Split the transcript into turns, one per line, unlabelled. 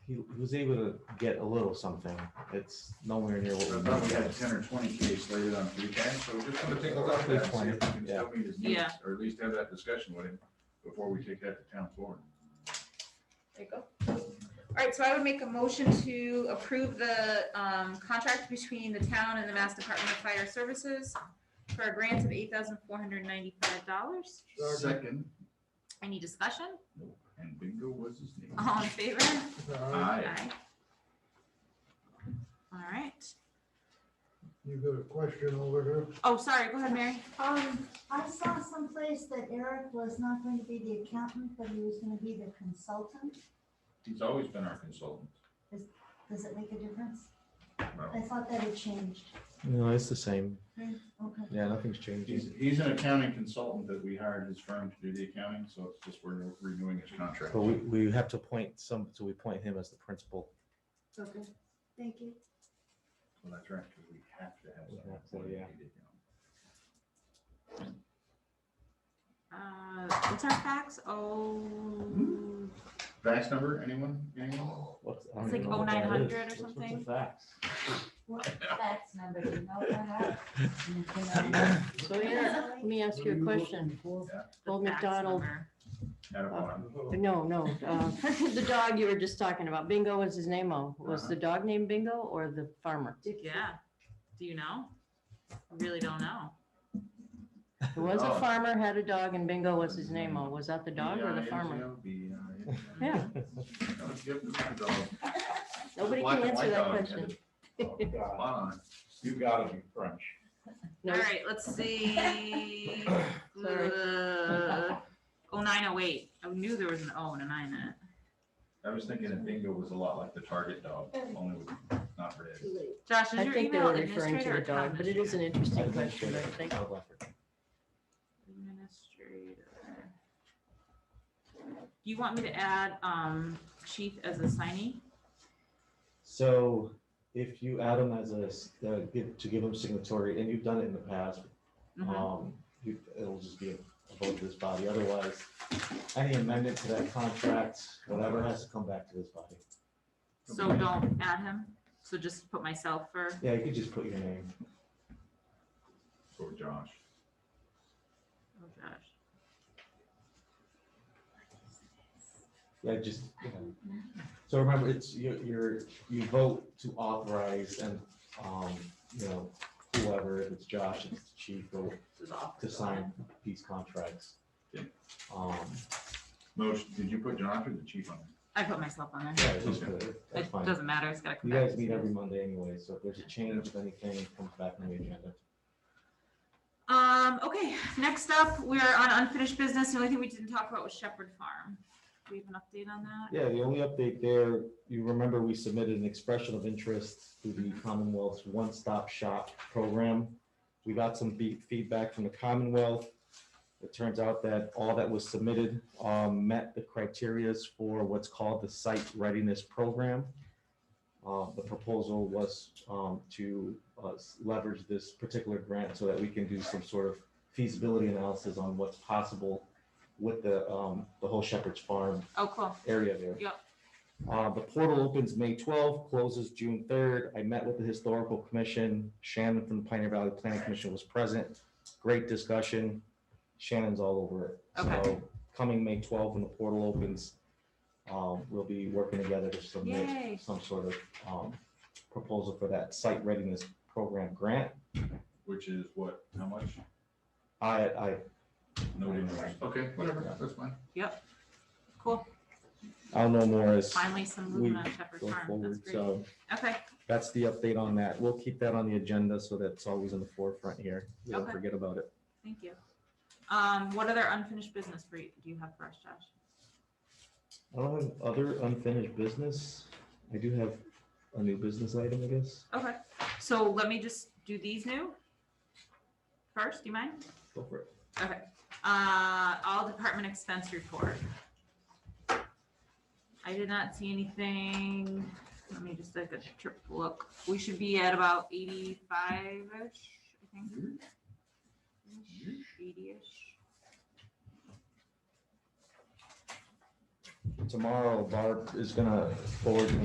he, he was able to get a little something. It's nowhere near what
So I
we
thought we
need.
had ten or twenty Ks slated on three times, so we're just gonna take a look at that, and see if we can still meet his needs,
Yeah.
or at least have that discussion with him before we take that to town floor.
There you go. All right, so I would make a motion to approve the um, contract between the town and the Mass Department of Fire Services for a grant of eight thousand four hundred ninety-five dollars.
Second,
Any discussion?
and bingo was his name.
Uh-huh.
All in favor?
Aye.
All right.
You got a question over here?
Oh, sorry, go ahead, Mary.
Um, I saw someplace that Eric was not going to be the accountant, but he was gonna be the consultant.
He's always been our consultant.
Does it make a difference?
Well,
I thought that had changed.
No, it's the same.
Okay.
Yeah, nothing's
He's,
changing.
he's an accounting consultant that we hired his firm to do the accounting, so it's just we're renewing his contract.
But we, we have to point some, so we point him as the principal.
Okay. Thank you.
Well, that's right, because we have to have
We
someone.
have to,
for the
yeah.
accounting.
Uh, What's our fax? Oh,
Fax number, anyone, anyone?
What's- I don't
It's
even know
like
what that is.
0900 or
What's with the
something.
fax?
That's number, you know what
So Eric, let me ask you a question.
Yeah.
the
Old
fax
McDonald,
number.
Not a one.
no, no, uh, the dog you were just talking about, Bingo was his name, oh, was
Uh-huh.
the dog named Bingo or the farmer?
Yeah. Do you know? I Really don't know.
It was a
dog.
farmer, had a dog, and Bingo was his name, oh, was that the dog or the farmer?
B-I-N-G-O, B-I-N-G-O.
Yeah,
No, it's good, it's good, dog.
nobody
Black
can
and
answer
white
that
dog,
question.
yeah. Oh, God. Fine. You gotta be French.
All
No,
right, let's see. Uh, Oh, nine oh eight. I knew there was an O and a nine in it.
I was thinking that Bingo was a lot like the Target dog, only with not red.
Josh, is
I
your
think they were
email
referring to
administrator
the
or town
dog, but it is an
administrator?
I
interesting
think
question, I
it's
think.
Child leopard.
Administrator. Do you want me to add, um, chief as a signee?
So if you add him as a, s- uh, give- to give him signatory, and you've done it in the past,
Mhm.
um, you, it'll just be a vote of this body. Otherwise, any amendment to that contract, whatever, has to come back to this body.
So don't add him. So just put myself for,
Yeah, you could just put your name.
Or Josh.
oh Josh.
Yeah, just, you know. So remember, it's, you, you're, you vote to authorize and, um, you know, whoever, if it's Josh, if it's the chief, or
This is off.
to sign these contracts.
Yeah.
Um,
Motion, did you put Josh or the chief on? it?
I put myself on there.
yeah, just, put it. that's
It
fine.
doesn't matter. It's gotta come
You
back.
guys meet every Monday anyway, so if there's a change, if anything it comes back on the agenda.
Um, okay, next up, we're on unfinished business. The only thing we didn't talk about was Shepherd Farm. Do we have an update on that?
Yeah, the only update there, you remember we submitted an expression of interest to the Commonwealth's One Stop Shop program. We got some be- feedback from the Commonwealth. It turns out that all that was submitted um, met the criterias for what's called the Site Readiness Program. Uh, The proposal was um, to uh, s- leverage this particular grant so that we can do some sort of feasibility analysis on what's possible with the, um, the whole Shepherd's Farm
Oh, cool.
area there.
Yep.
Uh, the portal opens May twelfth, closes June third. I met with the historical commission. Shannon from the Pioneer Valley Planning Commission was present. Great discussion. Shannon's all over it.
Okay.
So coming May twelfth, when the portal opens, um, we'll be working together to
Yay.
submit some sort of, um, proposal for that site readiness program grant.
Which is what, how much?
I, I
Nobody knows. Okay, whatever, that's fine.
Cool.
I'll know more as
Finally, some
We
movement on Shepherd
go
Farm. That's
forward.
great.
So
Okay,
that's the update on that. We'll keep that on the agenda so that's always in the forefront here. We don't
Okay.
forget about it.
thank you. Um, what other unfinished business for you, do you have for us, Josh?
I don't have other unfinished business. I do have a new business item, I guess.
Okay, so let me just do these new. First, do you mind?
Go for it.
Okay, uh, all department expense report. I did not see anything, let me just take a trip look, we should be at about eighty-five-ish, I think. Eighty-ish,
Tomorrow Barb is gonna forward me